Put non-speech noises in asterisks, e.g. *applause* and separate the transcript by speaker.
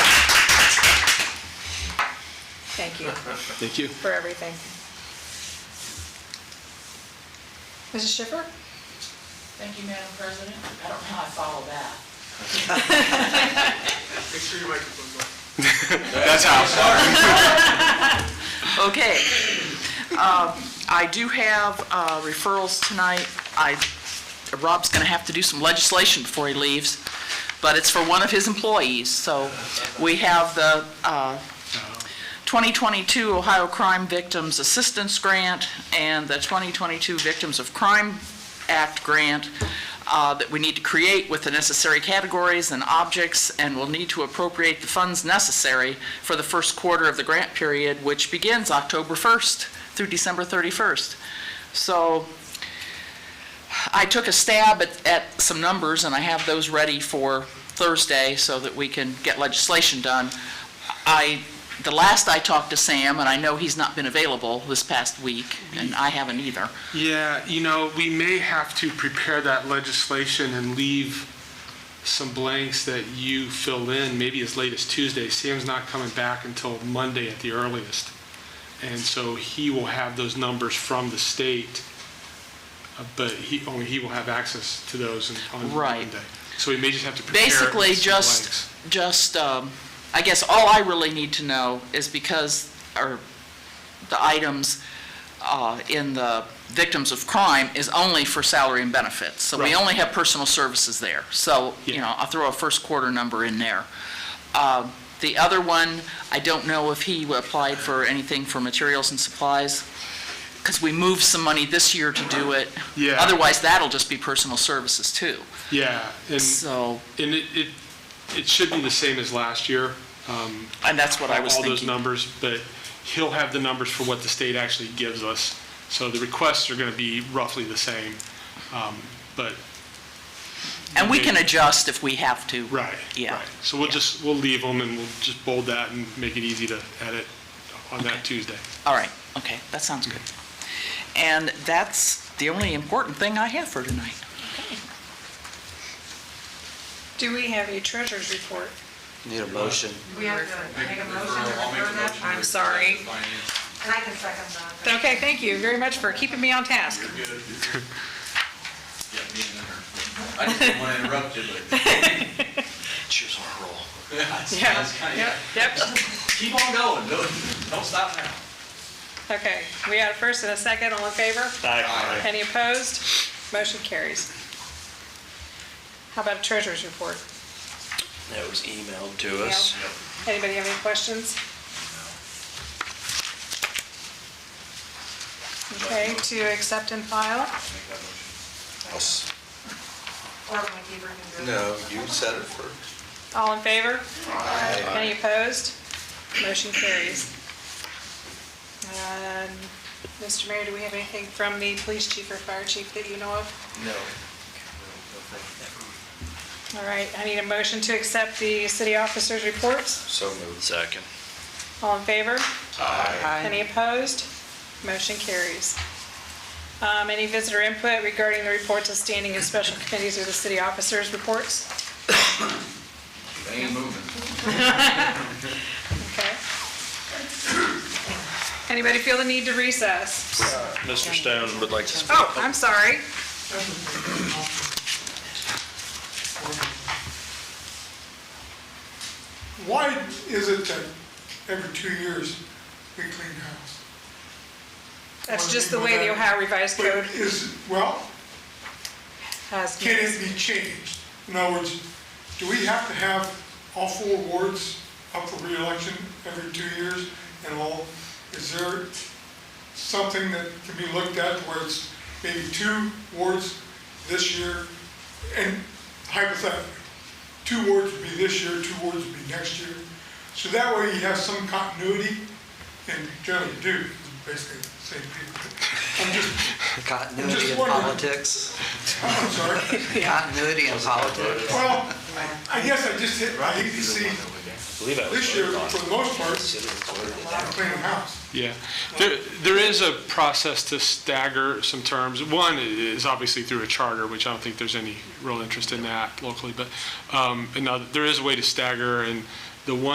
Speaker 1: Thank you
Speaker 2: Thank you.
Speaker 1: for everything. Mrs. Schiffer?
Speaker 3: Thank you, Madam President. I don't know how I follow that.
Speaker 4: Make sure your microphone's on.
Speaker 2: That's how.
Speaker 3: Okay. Um, I do have uh, referrals tonight. I, Rob's going to have to do some legislation before he leaves, but it's for one of his employees. So we have the uh, 2022 Ohio Crime Victims Assistance Grant and the 2022 Victims of Crime Act Grant uh, that we need to create with the necessary categories and objects, and will need to appropriate the funds necessary for the first quarter of the grant period, which begins October 1st through December 31st. So I took a stab at, at some numbers, and I have those ready for Thursday so that we can get legislation done. I, the last I talked to Sam, and I know he's not been available this past week, and I haven't either.
Speaker 5: Yeah, you know, we may have to prepare that legislation and leave some blanks that you fill in, maybe as late as Tuesday. Sam's not coming back until Monday at the earliest. And so he will have those numbers from the state, uh, but he, only he will have access to those in- on
Speaker 3: Right.
Speaker 5: Monday. So we may just have to prepare.
Speaker 3: basically
Speaker 5: some blanks.
Speaker 3: just, just, um, I guess all I really need to know is because, or the items, uh, in the victims of crime is only for salary and benefits. So we
Speaker 5: Right.
Speaker 3: only have personal services there. So, you
Speaker 5: Yeah.
Speaker 3: know, I'll throw a first quarter number in there. Um, the other one, I don't know if he applied for anything for materials and supplies, because we moved some money this year to do it.
Speaker 5: Yeah.
Speaker 3: Otherwise, that'll just be personal services too.
Speaker 5: Yeah, and,
Speaker 3: So,
Speaker 5: and it, it, it should be the same as last year. Um,
Speaker 3: and that's what I was
Speaker 5: all
Speaker 3: thinking.
Speaker 5: those numbers, but he'll have the numbers for what the state actually gives us. So the requests are going to be roughly the same, um, but,
Speaker 3: And we can adjust if we have to.
Speaker 5: right.
Speaker 3: Yeah.
Speaker 5: right. So we'll just, we'll leave them and we'll just bold that and make it easy to edit on that Tuesday.
Speaker 3: All right, okay, that sounds good. And that's the only important thing I have for tonight.
Speaker 1: Do we have a treasurer's report?
Speaker 2: Need a motion.
Speaker 6: We have to make a motion to
Speaker 4: I'll make a
Speaker 6: refer that,
Speaker 4: motion.
Speaker 1: I'm sorry.
Speaker 4: Finance,
Speaker 6: and I can second that.
Speaker 1: Okay, thank you very much for keeping me on task.
Speaker 4: you're good. *laughs* Yeah, me and her. I just didn't want to interrupt you, but *laughs*
Speaker 2: Cheers on a roll.
Speaker 1: Yeah.
Speaker 4: that's kind
Speaker 1: Yep,
Speaker 4: of,
Speaker 1: Yep,
Speaker 4: keep on going, don't, don't stop now.
Speaker 1: okay. We had a first and a second, all in favor?
Speaker 4: Aye.
Speaker 1: Any opposed? Motion carries. How about a treasurer's report?
Speaker 2: That was emailed to us.
Speaker 1: Anybody have any questions? Okay, to accept and file?
Speaker 2: Us-
Speaker 6: Or my keeper can do it.
Speaker 7: No, you said it first.
Speaker 1: All in favor? Any opposed? Motion carries. Um, Mr. Mayor, do we have anything from the police chief or fire chief that you know of?
Speaker 7: No.
Speaker 1: All right, I need a motion to accept the city officers' reports.
Speaker 7: So moved.
Speaker 2: Second.
Speaker 1: All in favor?
Speaker 7: Aye.
Speaker 1: Any opposed? Motion carries. Um, Any visitor input regarding the reports of standing and special committees or the city officers' reports?
Speaker 4: They ain't moving.
Speaker 1: Okay. Anybody feel the need to recess?
Speaker 2: Mr. Stone would like to speak.
Speaker 1: Oh, I'm sorry.
Speaker 8: Why is it that every two years we clean the house?
Speaker 1: That's just the way the Ohio Revised
Speaker 8: But
Speaker 1: Code
Speaker 8: is, well,
Speaker 1: has.
Speaker 8: can it be changed? In other words, do we have to have all four wards up for reelection every two years and all? Is there something that can be looked at where it's maybe two wards this year? And hypothetically, two wards would be this year, two wards would be next year. So that way you have some continuity and generally do, basically, the same people. I'm just, I'm
Speaker 9: Continuity
Speaker 8: just
Speaker 9: in
Speaker 8: wondering.
Speaker 9: politics.
Speaker 8: I'm sorry.
Speaker 9: Continuity in politics.
Speaker 8: Well, I guess I just hit, I hate to see, this year, for the most part, I'm cleaning house.
Speaker 5: Yeah, there, there is a process to stagger some terms. One is obviously through a charter, which I don't think there's any real interest in that locally, but um, another, there is a way to stagger, and the one